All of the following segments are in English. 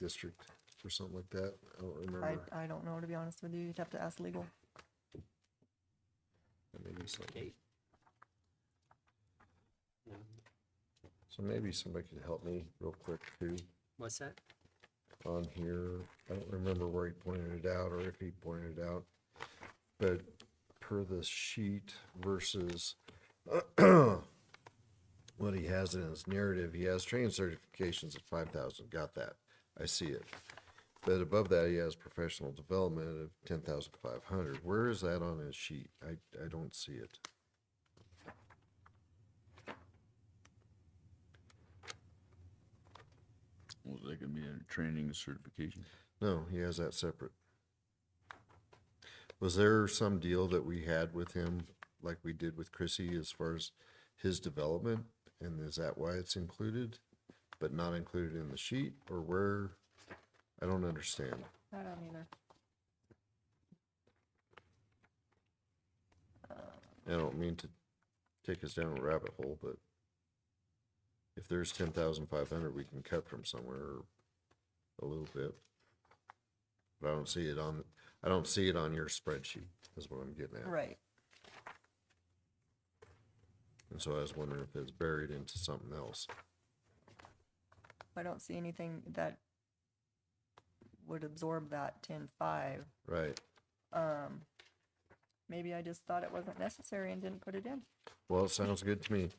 district or something like that. I don't I, remember. I don't know, to be honest with you. You'd have to ask legal. That may be something. Eight. So maybe somebody could help me real quick too What's that? on here. I don't remember where he pointed it out or if he pointed it out. But per the sheet versus what he has in his narrative, he has training certifications at five thousand. Got that. I see it. But above that, he has professional development of ten thousand five hundred. Where is that on his sheet? I, I don't see it. Well, that could be a training certification. No, he has that separate. Was there some deal that we had with him, like we did with Chrissy, as far as his development? And is that why it's included, but not included in the sheet, or where? I don't understand. I don't either. I don't mean to take us down a rabbit hole, but if there's ten thousand five hundred, we can cut from somewhere a little bit. But I don't see it on, I don't see it on your spreadsheet, is what I'm getting at. Right. And so I was wondering if it's buried into something else. I don't see anything that would absorb that ten five. Right. Um, maybe I just thought it wasn't necessary and didn't put it in. Well, it sounds good to me.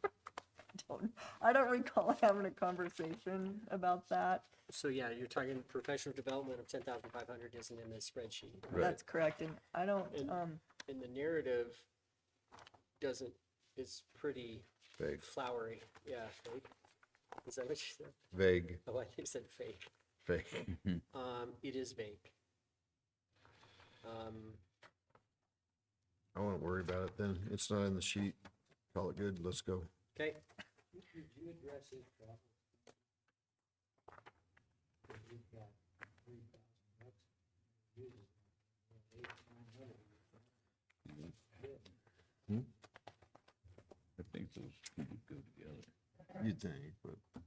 Don't, I don't recall having a conversation about that. So yeah, you're talking professional development of ten thousand five hundred isn't in the spreadsheet. Right. That's correct, and I don't, And- um, And the narrative doesn't, is pretty Vague. flowery, yeah, fake. Is that what you said? Vague. Oh, I think you said fake. Vague. Um, it is vague. Um, I wouldn't worry about it then. It's not in the sheet. Call it good. Let's go. okay, Did you address his problem? Cause we've got three thousand bucks. uses it, or eight, nine hundred. I think those two would go together. You'd think, but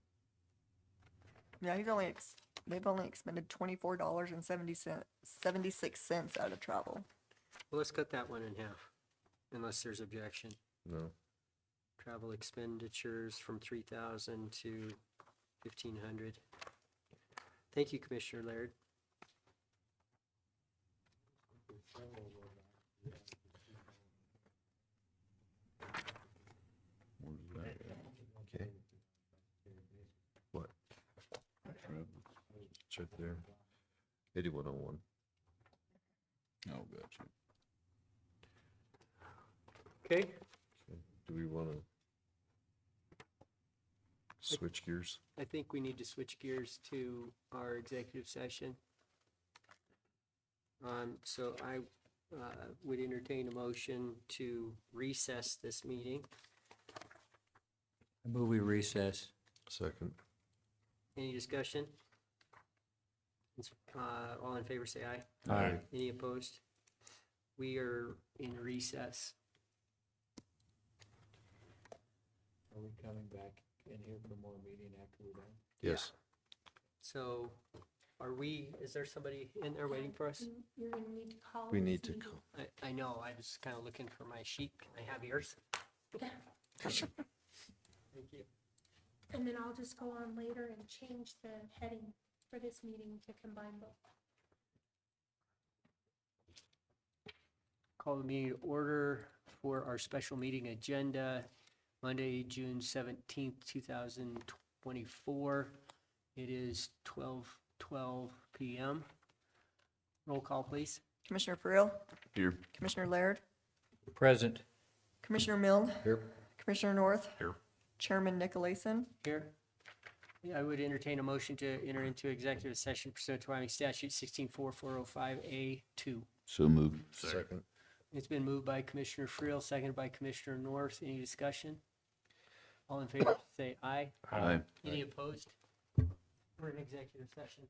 yeah, he's only, ex- they've only expended twenty-four dollars and seventy cent, seventy-six cents out of travel. well, let's cut that one in half, unless there's objection. no. Travel expenditures from three thousand to fifteen hundred. Thank you, Commissioner Laird. Where's that at? Okay. What? Travel. It's right there. Eighty-one oh one. Oh, gotcha. Okay, Do we want to switch gears? I think we need to switch gears to our executive session. Um, so I, uh, would entertain a motion to recess this meeting. Movie recess. Second. Any discussion? It's, Uh, all in favor, say aye. Aye. Any opposed? We are in recess. Are we coming back in here for more meeting after we're done? Yes. So are we, is there somebody in there waiting for us? You're gonna need to call. We this need to, meeting. call- I, I know, I was kind of looking for my sheet. Can I have yours? Thank you. And then I'll just go on later and change the heading for this meeting to combine both. Call the meeting to order for our special meeting agenda, Monday, June seventeenth, two thousand twenty-four. It is twelve, twelve PM. Roll call, please. Commissioner Frill, Here. Commissioner Laird, Present. Commissioner Mill, here, Commissioner North. Here. Chairman Nicolason. Here. Yeah, I would entertain a motion to enter into executive session pursuant to Wyoming statute sixteen four four oh five A two. So moved. second. It's been moved by Commissioner Friel, seconded by Commissioner North. Any discussion? All in favor, say aye. Aye. Any opposed? We're in executive session.